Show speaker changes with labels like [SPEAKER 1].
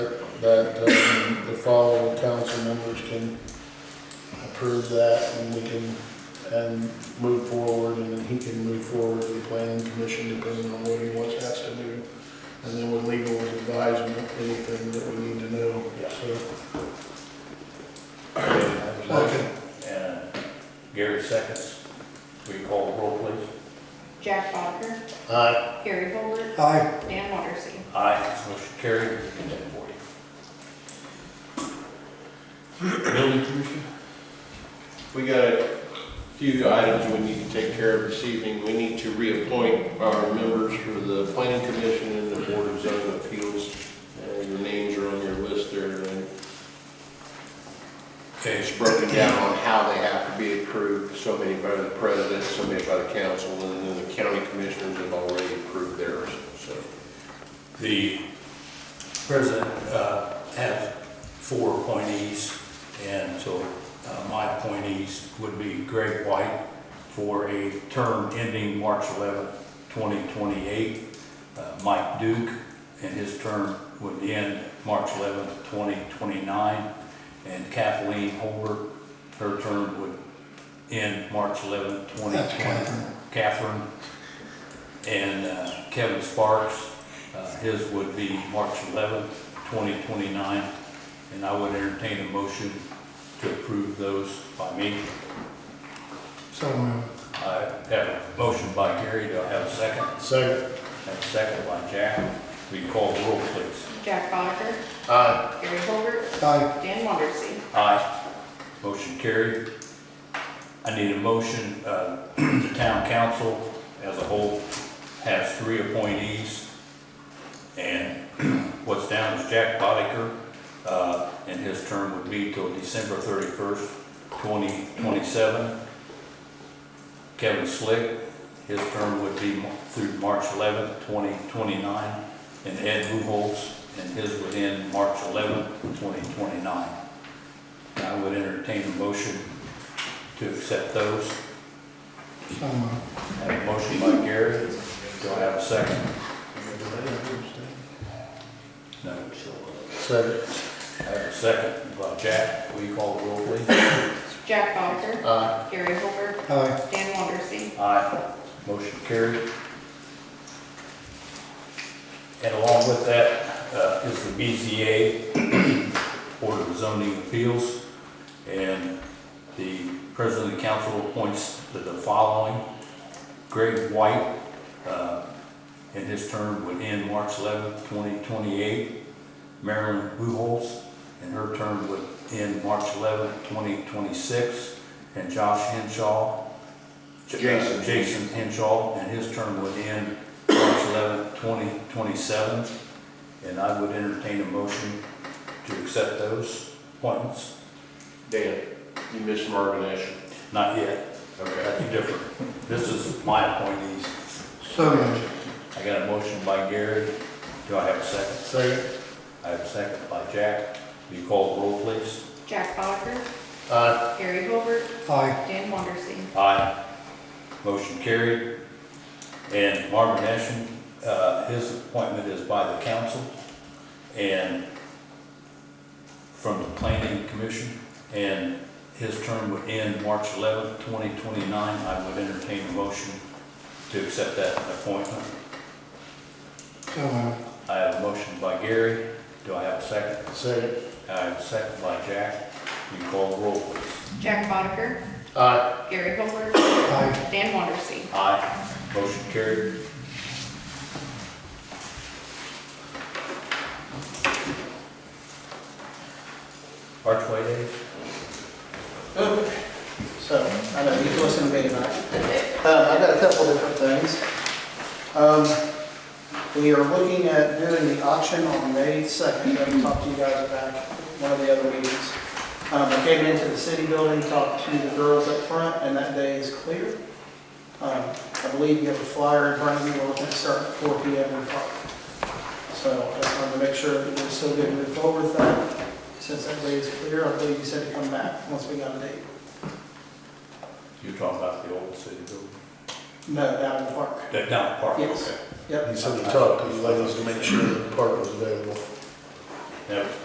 [SPEAKER 1] that um, the following council members can approve that and we can, and move forward, and then he can move forward to the planning commission depending on what he wants us to do. And then with legal advice and anything that we need to know, so.
[SPEAKER 2] Motion. And Gary seconds. Will you call the roll, please?
[SPEAKER 3] Jack Botter,
[SPEAKER 1] Aye.
[SPEAKER 3] Gary Holbert,
[SPEAKER 2] Aye.
[SPEAKER 3] Dan Wondersen.
[SPEAKER 2] Aye, motion carried, and then forty. Building commission?
[SPEAKER 4] We got a few items we need to take care of this evening. We need to reappoint our members for the planning commission and the board of zoning appeals. Uh, Your names are on your list there, and
[SPEAKER 2] Okay,
[SPEAKER 4] it's broken down on how they have to be approved. So many by the president, so many by the council, and then the county commissioners have already approved theirs, so.
[SPEAKER 2] the president uh, has four appointees, and so uh, my appointees would be Greg White for a term ending March 11, 2028, uh, Mike Duke, and his term would end March 11, 2029, and Kathleen Holbert, her term would end March 11, 2020. Catherine. And uh, Kevin Sparks, uh, his would be March 11th, 2029. And I would entertain a motion to approve those by me.
[SPEAKER 1] So moved.
[SPEAKER 2] I have a motion by Gary, do I have a second?
[SPEAKER 1] Second.
[SPEAKER 2] Have a second by Jack. Will you call the roll, please?
[SPEAKER 3] Jack Botter,
[SPEAKER 1] Aye.
[SPEAKER 3] Gary Holbert,
[SPEAKER 1] Aye.
[SPEAKER 3] Dan Wondersen.
[SPEAKER 2] Aye. Motion carried. I need a motion, uh, the town council as a whole has three appointees. And what's down is Jack Botiker, uh, and his term would be till December thirty-first, twenty twenty-seven. Kevin Slick, his term would be mo- through March eleventh, twenty twenty-nine. And Ed Buchholz, and his would end March eleventh, twenty twenty-nine. I would entertain a motion to accept those. I have a motion by Gary. Do I have a second? No.
[SPEAKER 1] Second.
[SPEAKER 2] I have a second by Jack. Will you call the roll, please?
[SPEAKER 3] Jack Botter,
[SPEAKER 1] Aye.
[SPEAKER 3] Gary Holbert,
[SPEAKER 1] Aye.
[SPEAKER 3] Dan Wondersen.
[SPEAKER 2] Aye. Motion carried. And along with that uh, is the BZA, Board of Zoning Appeals. And the President of the Council appoints to the following. Greg White, uh, and his term would end March 11th, 2028. Marilyn Buholz, and her term would end March 11th, 2026. And Josh Henshaw. J- uh,
[SPEAKER 4] Jason.
[SPEAKER 2] Jason Henshaw, and his term would end March 11th, 2027. And I would entertain a motion to accept those appointments.
[SPEAKER 4] Dan, you missed Marvin Ashe.
[SPEAKER 2] Not yet, that's different. This is my appointees.
[SPEAKER 1] So moved.
[SPEAKER 2] I got a motion by Gary. Do I have a second?
[SPEAKER 1] Second.
[SPEAKER 2] I have a second by Jack. Will you call the roll, please?
[SPEAKER 3] Jack Botter,
[SPEAKER 1] Aye.
[SPEAKER 3] Gary Holbert,
[SPEAKER 1] Aye.
[SPEAKER 3] Dan Wondersen.
[SPEAKER 2] Aye. Motion carried. And Marvin Ashen, uh, his appointment is by the council and from the planning commission. And his term would end March 11th, 2029. I would entertain a motion to accept that appointment.
[SPEAKER 1] So moved.
[SPEAKER 2] I have a motion by Gary. Do I have a second?
[SPEAKER 1] Second.
[SPEAKER 2] I have a second by Jack. Will you call the roll, please?
[SPEAKER 3] Jack Botter,
[SPEAKER 1] Aye.
[SPEAKER 3] Gary Holbert,
[SPEAKER 1] Aye.
[SPEAKER 3] Dan Wondersen.
[SPEAKER 2] Aye. Motion carried. Archway Days?
[SPEAKER 5] So, I know you was gonna be tonight. Um, I've got a couple different things. Um, we are looking at doing the auction on May second, I talked to you guys about one of the other meetings. Um, I came into the city building, talked to the girls up front, and that day is clear. Um, I believe you have a flyer in front of you, we're looking to start at four P M in the park. So I just wanted to make sure that we're still good to move forward with that, since that day is clear, I believe you said to come back once we got a date.
[SPEAKER 2] You're talking about the old city building?
[SPEAKER 5] No, down in the park.
[SPEAKER 2] That down park?
[SPEAKER 5] Yes.
[SPEAKER 2] okay.
[SPEAKER 5] Yep.
[SPEAKER 1] He said he talked to the ladies to make sure that the park was available.
[SPEAKER 2] That was